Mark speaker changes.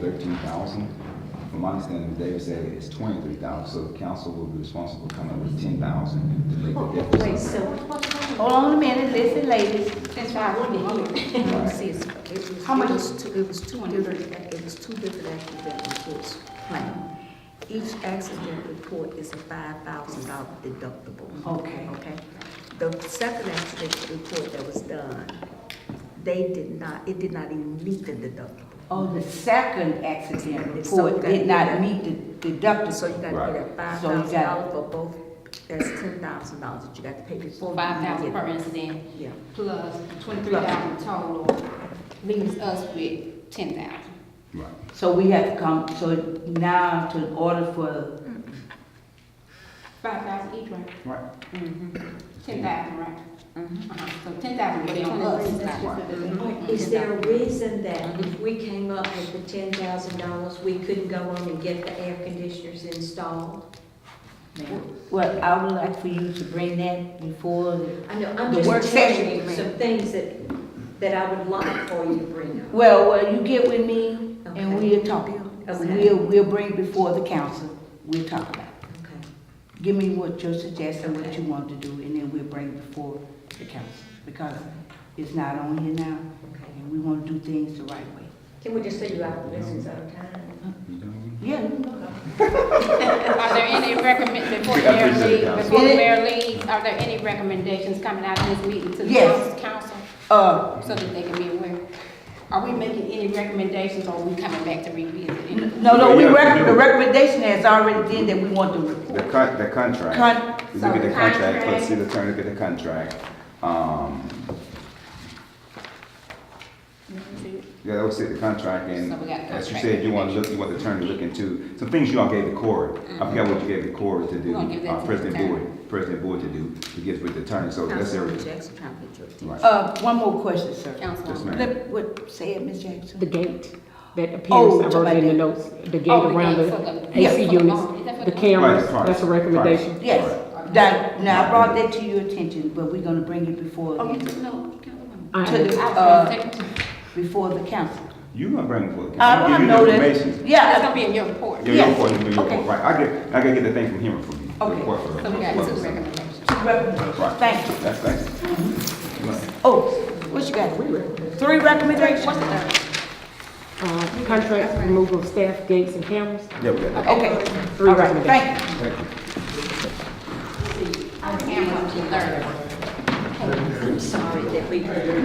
Speaker 1: thirteen thousand. From my understanding, David said it's twenty-three thousand, so the council will be responsible coming up with ten thousand to make
Speaker 2: Oh,
Speaker 1: the difference.
Speaker 2: Wait, so, hold on a minute, listen, ladies, that's why I wanted to hear. How much?
Speaker 3: It was two, it was two different, it was two different accident reports planned. Each accident report is a five thousand dollar deductible.
Speaker 2: Okay.
Speaker 3: Okay? The second accident report that was done, they did not, it did not even meet the deductible.
Speaker 2: Oh, the second accident
Speaker 3: So
Speaker 2: report
Speaker 3: that-
Speaker 2: did not meet the
Speaker 3: So you
Speaker 2: deductible.
Speaker 3: gotta pay that
Speaker 2: Right.
Speaker 3: five
Speaker 2: So you
Speaker 3: thousand
Speaker 2: got-
Speaker 3: dollars for both, that's ten thousand dollars that you got to pay before. you
Speaker 4: Five thousand
Speaker 3: get-
Speaker 4: per incident
Speaker 3: Yeah.
Speaker 4: plus twenty-three thousand total leaves us with ten thousand.
Speaker 1: Right.
Speaker 2: So we have to come, so now to order for,
Speaker 4: Five thousand each, right?
Speaker 1: Right.
Speaker 4: Ten thousand, right? Uh-huh. So ten thousand would be on us.
Speaker 5: Is there a reason that if we came up with the ten thousand dollars, we couldn't go on and get the air conditioners installed?
Speaker 2: well, I would like for you to bring that before. the-
Speaker 5: I know, I'm
Speaker 2: The work
Speaker 5: just
Speaker 2: session,
Speaker 5: telling you
Speaker 2: ma'am.
Speaker 5: some things that, that I would like for you to bring up.
Speaker 2: Well, well, you get with me and
Speaker 5: Okay.
Speaker 2: we'll talk.
Speaker 5: Okay.
Speaker 2: We'll, we'll bring before the council, we'll talk about it.
Speaker 5: Okay.
Speaker 2: Give me what your suggestion, what you want to do, and then we'll bring it before the council, because it's not on here now,
Speaker 5: Okay.
Speaker 2: and we want to do things the right way.
Speaker 5: Can we just leave you out of the business out of time?
Speaker 1: You done?
Speaker 2: Yeah, you can go.
Speaker 4: Are there any recommend, before the
Speaker 1: I
Speaker 4: mayor
Speaker 1: appreciate it,
Speaker 4: leaves,
Speaker 1: Council.
Speaker 4: before the mayor leaves, are there any recommendations coming out of this meeting to the
Speaker 2: Yes.
Speaker 4: council?
Speaker 2: uh,
Speaker 4: So that they can be aware. Are we making any recommendations or are we coming back to revisit? it?
Speaker 2: no, no, we
Speaker 1: Yeah, you
Speaker 2: rec-
Speaker 1: do.
Speaker 2: the recommendation has already been that we want to
Speaker 1: The
Speaker 2: report.
Speaker 1: con, the contract.
Speaker 2: Con-
Speaker 1: You Look at the contract,
Speaker 4: So contract.
Speaker 1: let's see the attorney, look at the contract. Um, yeah, that was it, the contract, and
Speaker 4: So we got
Speaker 1: as you
Speaker 4: contract
Speaker 1: said, you wanna look, you want the attorney to look into, some things you all gave the court. I forgot what you gave the court to
Speaker 4: We're
Speaker 1: do,
Speaker 4: Mm-hmm. gonna give that
Speaker 1: uh,
Speaker 4: to the
Speaker 1: President
Speaker 4: attorney.
Speaker 1: Boyd, President Boyd to do, to give with the attorney, so that's
Speaker 3: Councilwoman
Speaker 1: everything.
Speaker 3: Jackson trying to get your attention.
Speaker 1: Right.
Speaker 2: Uh, one more question, sir.
Speaker 1: Yes,
Speaker 4: Councilwoman.
Speaker 1: ma'am.
Speaker 2: Let, what, say it, Ms. Jackson.
Speaker 6: The gate that
Speaker 2: Oh,
Speaker 6: appears, I wrote it in the notes, the gate
Speaker 4: Oh, the
Speaker 6: around
Speaker 4: gate
Speaker 6: the
Speaker 4: for the-
Speaker 6: AC
Speaker 4: yeah.
Speaker 6: units, the cameras,
Speaker 1: Right, right,
Speaker 6: that's a
Speaker 1: right.
Speaker 6: recommendation.
Speaker 2: Yes, that, now, I brought that to your attention, but we're gonna bring it before,
Speaker 4: Oh, you
Speaker 2: the-
Speaker 4: took note, Councilwoman?
Speaker 6: I
Speaker 2: to the,
Speaker 4: I was
Speaker 2: uh,
Speaker 4: gonna say,
Speaker 2: before the council.
Speaker 1: You gonna bring it for the.
Speaker 2: I
Speaker 1: I'll give
Speaker 2: wanna
Speaker 1: you
Speaker 2: know
Speaker 1: the
Speaker 2: that,
Speaker 1: information.
Speaker 4: That's
Speaker 2: yeah,
Speaker 4: gonna be in your report.
Speaker 1: Yeah,
Speaker 2: Yes.
Speaker 1: your court, your
Speaker 2: Okay.
Speaker 1: court, right, I get, I gotta get the thing from him from you. the
Speaker 2: Okay.
Speaker 1: court for-
Speaker 4: So we got
Speaker 1: for-
Speaker 4: two
Speaker 1: for-
Speaker 4: recommendations.
Speaker 2: two recommendations,
Speaker 1: Right.
Speaker 2: thank you.
Speaker 1: That's, thank you. Right.
Speaker 2: Oh, what you got? Three recommendations?
Speaker 4: What's the third?
Speaker 6: Uh, contract removal of staff, gates and cameras,
Speaker 1: Yeah, we got that.
Speaker 2: Okay,
Speaker 6: three
Speaker 2: all right,
Speaker 6: recommendations.
Speaker 2: thank you.
Speaker 1: Thank you.
Speaker 4: Cameras, the third.
Speaker 5: I'm sorry that we.